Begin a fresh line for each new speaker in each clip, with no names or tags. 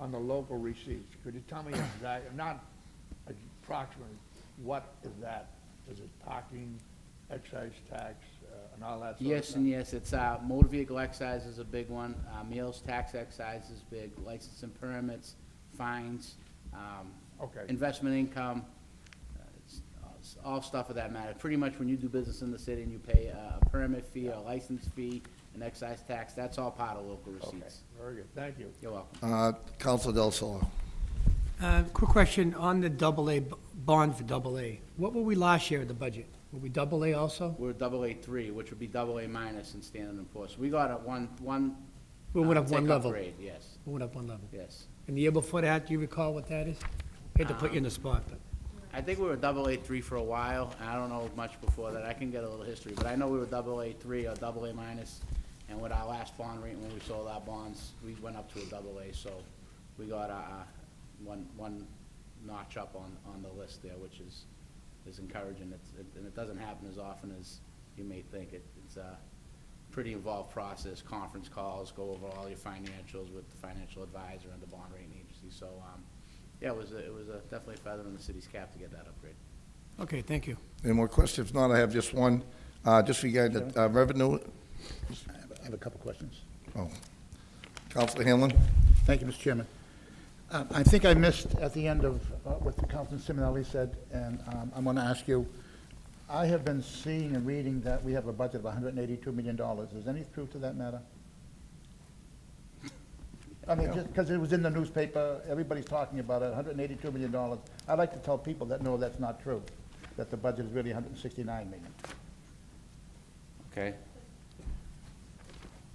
on the local receipts? Could you tell me exactly, not approximately, what is that? Is it parking, excise tax, uh, and all that sort of stuff?
Yes and yes, it's, uh, motor vehicle excise is a big one, uh, meals tax excise is big, license and permits, fines, um,
Okay.
investment income, uh, it's all- it's all stuff of that matter. Pretty much when you do business in the city and you pay a a permit fee, a license fee, an excise tax, that's all part of local
Okay,
receipts.
very good, thank you.
You're welcome.
Uh, Counsel Del Solo.
Uh, Quick question on the double A, b- bond for double A. What were we last year in the budget? Were we double A also?
We're double A three, which would be double A minus in standard and Poor's. We got a one, one.
We went
uh,
up one
take-up
level.
grade, Yes,
We went up one level.
yes.
And the year before that, do you recall what that is? Hate to put you in the spot, but,
I think we were double A three for a while. I don't know much before that. I can get a little history, but I know we were double A three or double A minus. And with our last bond rate, when we sold our bonds, we went up to a double A, so we got a, uh, one, one notch up on, on the list there, which is, is encouraging. It's, it- and it doesn't happen as often as you may think. It, it's uh, a pretty involved process, conference calls, go over all your financials with the financial advisor and the bond rating agency. So, um, yeah, it was, a- it was a- definitely a feather in the city's cap to get that upgrade.
okay, thank you.
Any more questions? If not, I have just one, uh, just regarding the uh, revenue.
I have- I have a couple questions.
Oh, Counsel Hanlon?
Thank you, Mr. Chairman. Um, I think I missed at the end of uh, what Councilman Simonelli said, and um, I'm going to ask you, I have been seeing and reading that we have a budget of $182 million. Is any truth to that matter? I mean, just because it was in the newspaper, everybody's talking about it, $182 million. I'd like to tell people that, no, that's not true, that the budget is really $169 million.
Okay.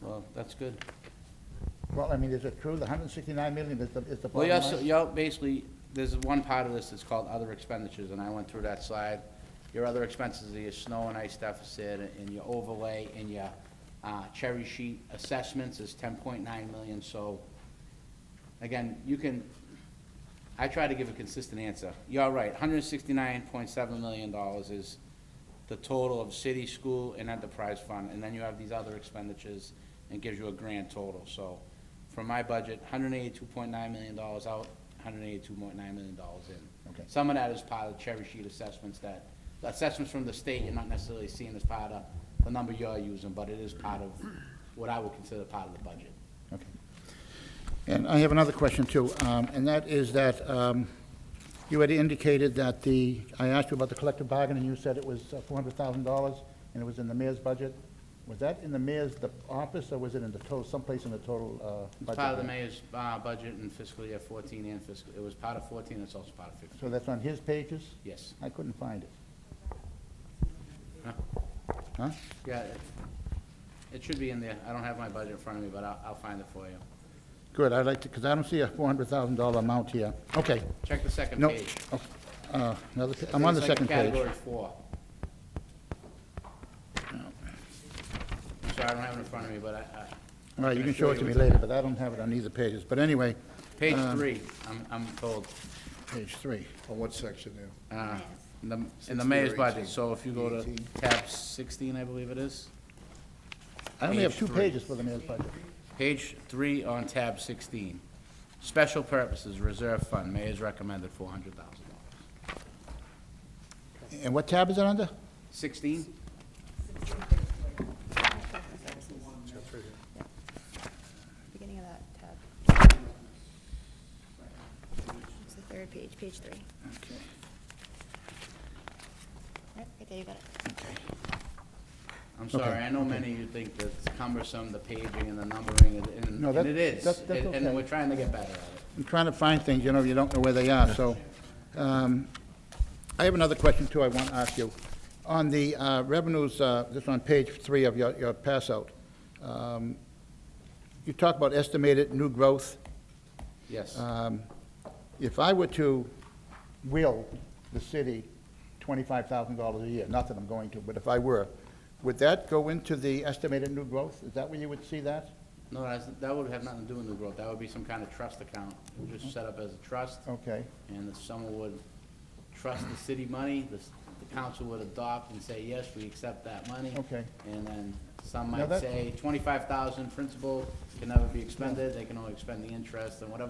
Well, that's good.
Well, I mean, is it true, the $169 million is the is the
Well,
bottom
you also,
line?
you all- basically, there's one part of this that's called other expenditures, and I went through that slide. Your other expenses are your snow and ice deficit, and your overlay, and your uh, cherry sheet assessments is ten point nine million, so, again, you can, I try to give a consistent answer. You're right, hundred and sixty-nine point seven million dollars is the total of city, school, and enterprise fund, and then you have these other expenditures, and gives you a grand total, so from my budget, hundred and eighty-two point nine million dollars out, hundred and eighty-two point nine million dollars in.
Okay.
Some of that is part of the cherry sheet assessments that, the assessments from the state, you're not necessarily seeing as part of the number you're using, but it is part of what I would consider part of the budget.
Okay. And I have another question, too, um, and that is that um, you had indicated that the, I asked you about the collective bargaining, you said it was uh, $400,000, and it was in the mayor's budget. Was that in the mayor's the office, or was it in the total, someplace in the total uh,
It's
budget?
part of the mayor's, uh, budget in fiscal year fourteen and fiscal, it was part of fourteen, it's also part of fifteen,
So that's on his pages?
yes.
I couldn't find it.
Huh?
Huh?
Yeah, it, it should be in there, I don't have my budget in front of me, but I'll, I'll find it for you.
Good, I'd like to, because I don't see a $400,000 amount here. Okay,
Check the second
no,
page.
oh, uh, another pa- I'm on the
It's like
second page.
Category four. I'm sorry, I don't have it in front of me, but I, I,
All right, you can
Sure,
show it to
it
me
was on-
later, but I don't have it on either pages. But anyway,
page
Um,
three, I'm, I'm told,
page three.
On what section there?
uh, in the, in the
16 or
mayor's
18?
budget, so if you go to
18.
tab sixteen, I believe it is,
I only have
Page
two
three.
pages for the mayor's budget.
page three on tab sixteen. Special purposes, reserve fund, mayor's recommended four hundred thousand dollars.
And what tab is it under?
Sixteen?
Beginning of that tab. It's the third page, page three.
Okay.
Right, right there, you got it.
I'm
Okay,
sorry, I know many of you think that it's cumbersome, the paging and the numbering, and- and,
No,
and
that-
it is.
that- that's
and- And
okay.
we're trying to get better at it.
I'm trying to find things, you know, you don't know where they are, so. um, I have another question, too, I want to ask you. On the uh, revenues, uh, this is on page three of your, your pass-out, um, you talk about estimated new growth.
Yes.
Um, If I were to will the city $25,000 a year, not that I'm going to, but if I were, would that go into the estimated new growth? Is that where you would see that?
No, that's, that would have nothing to do with new growth, that would be some kind of trust account, We'll just set up as a trust.
Okay.
And if someone would trust the city money, the, s- the council would adopt and say, yes, we accept that money.
Okay.
And then some
Now
might
that-
say, twenty-five thousand principal can never be expended, they can only expend the interest, and whatever